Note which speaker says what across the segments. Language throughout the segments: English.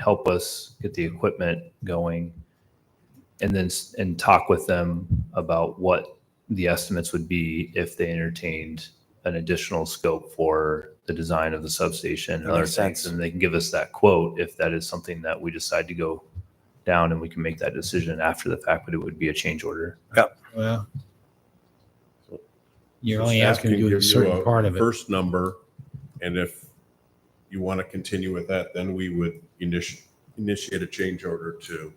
Speaker 1: help us get the equipment going and then, s- and talk with them about what the estimates would be if they entertained an additional scope for the design of the substation and
Speaker 2: That
Speaker 1: other
Speaker 2: makes
Speaker 1: things.
Speaker 2: sense.
Speaker 1: And they can give us that quote if that is something that we decide to go down and we can make that decision after the fact, but it would be a change order.
Speaker 3: Well. You're
Speaker 4: Just
Speaker 3: only asking to
Speaker 4: asking
Speaker 3: do a
Speaker 4: gives you
Speaker 3: certain part of it.
Speaker 4: First number, and if you want to continue with that, then we would initiate, initiate a change order to.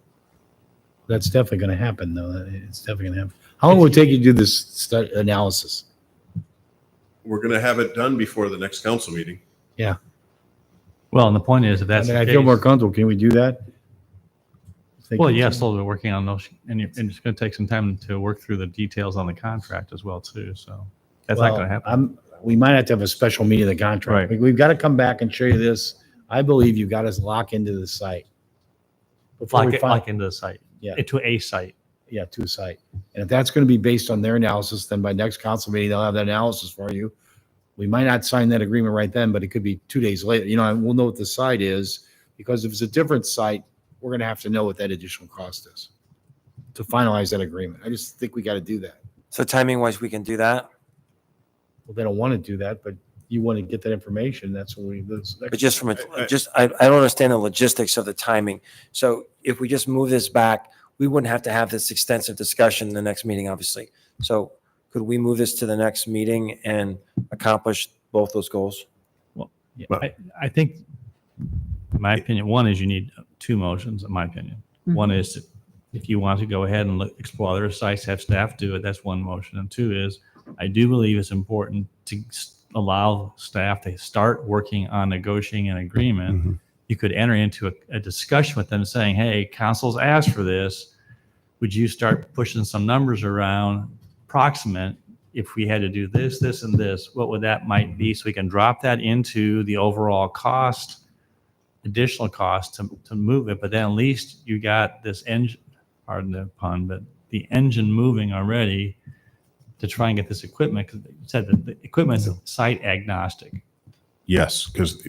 Speaker 3: That's definitely gonna happen though. That- It's definitely gonna happen. How long will it take you to do this stu- analysis?
Speaker 4: We're going to have it done before the next council meeting.
Speaker 5: Well, and the point is, if
Speaker 3: I
Speaker 5: that's
Speaker 3: mean,
Speaker 5: the
Speaker 3: I feel more
Speaker 5: case,
Speaker 3: comfortable. Can we do that? Think
Speaker 5: well,
Speaker 3: we
Speaker 5: yeah,
Speaker 3: can?
Speaker 5: slowly we're working on those, and it- and it's going to take some time to work through the details on the contract as well, too, so that's not
Speaker 3: Well,
Speaker 5: going to happen.
Speaker 3: I'm, we might have to have a special meeting of the contract.
Speaker 5: Right.
Speaker 3: We- We've got to come back and show you this. I believe you got us locked into the site. Before we
Speaker 5: Like,
Speaker 3: find,
Speaker 5: like into the site.
Speaker 3: Yeah.
Speaker 5: To a site.
Speaker 3: yeah, to a site. And if that's going to be based on their analysis, then by next council meeting, they'll have that analysis for you. We might not sign that agreement right then, but it could be two days later, you know, and we'll know what the site is. Because if it's a different site, we're going to have to know what that additional cost is to finalize that agreement. I just think we got to do that.
Speaker 2: So timing wise, we can do that,
Speaker 3: Well, they don't want to do that, but you want to get that information. That's when we, this next
Speaker 2: but just from
Speaker 4: I- I-
Speaker 2: a, just, I, I don't understand the logistics of the timing. So if we just move this back, we wouldn't have to have this extensive discussion in the next meeting, obviously. So could we move this to the next meeting and accomplish both those goals?
Speaker 5: Yeah,
Speaker 4: But-
Speaker 5: I, I think, in my opinion, one is you need two motions, in my opinion. One is to- if you want to go ahead and look, explore other sites, have staff do it, that's one motion. And two is, I do believe it's important to s- allow staff to start working on negotiating an agreement. You could enter into a, a discussion with them saying, hey, council's asked for this. Would you start pushing some numbers around proximate if we had to do this, this, and this, what would that might be? So we can drop that into the overall cost, additional cost to, to move it, but then at least you got this engine, pardon the pun, but the engine moving already to try and get this equipment, because you said that the equipment's site agnostic.
Speaker 4: Yes, because,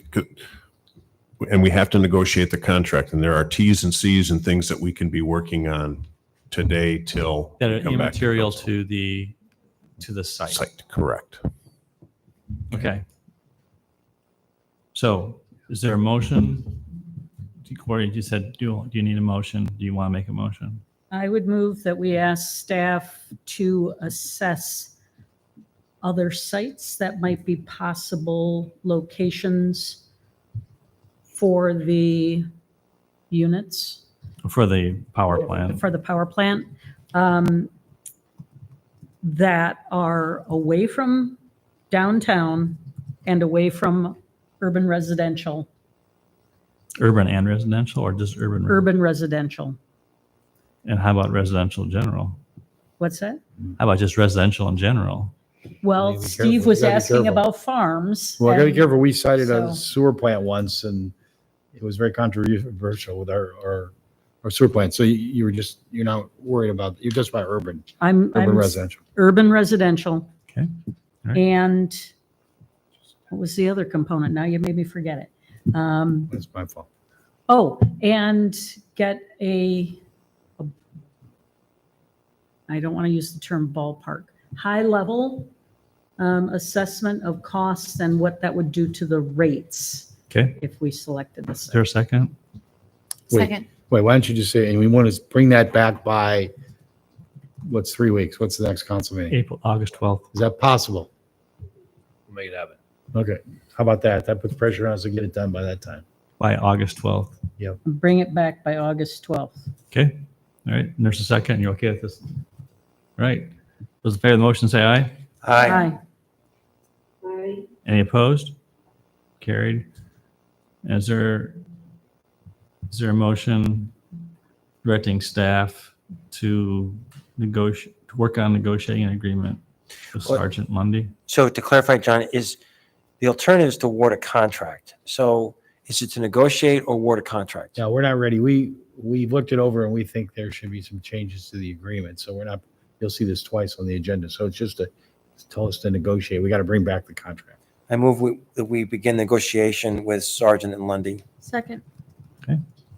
Speaker 4: and we have to negotiate the contract, and there are Ts and Cs and things that we can be working on today till.
Speaker 5: That are
Speaker 4: come back
Speaker 5: immaterial
Speaker 4: council.
Speaker 5: to the, to the site.
Speaker 4: Site, correct.
Speaker 5: Okay. So is there a motion? Corey, you said, do, do you need a motion? Do you want to make a motion?
Speaker 6: I would move that we ask staff to assess other sites that might be possible locations for the units,
Speaker 5: For the power plant.
Speaker 6: for the power plant, um, that are away from downtown and away from urban residential,
Speaker 5: Urban and residential or just urban?
Speaker 6: urban residential.
Speaker 5: And how about residential in general?
Speaker 6: What's that?
Speaker 5: How about just residential in general?
Speaker 3: You
Speaker 6: Well,
Speaker 3: gotta be
Speaker 6: Steve
Speaker 3: careful.
Speaker 6: was
Speaker 3: You gotta be
Speaker 6: asking
Speaker 3: careful.
Speaker 6: about farms.
Speaker 3: Well, I gotta be
Speaker 6: and-
Speaker 3: careful. We cited a
Speaker 6: so-
Speaker 3: sewer plant once and it was very controversial with our, our, our sewer plant. So you, you were just, you're not worried about, you're just about urban,
Speaker 6: I'm,
Speaker 3: urban
Speaker 6: I'm
Speaker 3: residential.
Speaker 6: urban residential.
Speaker 5: Okay. All right.
Speaker 6: And what was the other component? Now you made me forget it. Um,
Speaker 3: That's my fault.
Speaker 6: Oh, and get a, a- I don't want to use the term ballpark, high-level um, assessment of costs and what that would do to the rates
Speaker 5: Okay,
Speaker 6: if we selected this.
Speaker 5: is there a second?
Speaker 3: Wait.
Speaker 7: Second,
Speaker 3: Wait, why don't you just say, and we want to bring that back by, what's three weeks? What's the next council meeting?
Speaker 5: April, August 12th.
Speaker 3: Is that possible?
Speaker 1: We'll Make it happen.
Speaker 3: Okay. How about that? That puts pressure on us to get it done by that time.
Speaker 5: By August 12th.
Speaker 6: Bring it back by August 12th.
Speaker 5: Okay, all right, and there's a second, you're okay with this? All Right, those in favor of the motion say aye.
Speaker 2: Aye.
Speaker 5: Any opposed? Carried. Is there, is there a motion directing staff to negotiate, to work on negotiating an agreement with
Speaker 2: Well-
Speaker 5: Sergeant Lundy?
Speaker 2: So to clarify, John, is the alternative is to award a contract. So is it to negotiate or award a contract?
Speaker 3: No, we're not ready. We, we've looked it over and we think there should be some changes to the agreement. So we're not, you'll see this twice on the agenda. So it's just to tell us to negotiate. We got to bring back the contract.
Speaker 2: I move we, that we begin negotiation with Sergeant and Lundy.
Speaker 7: second,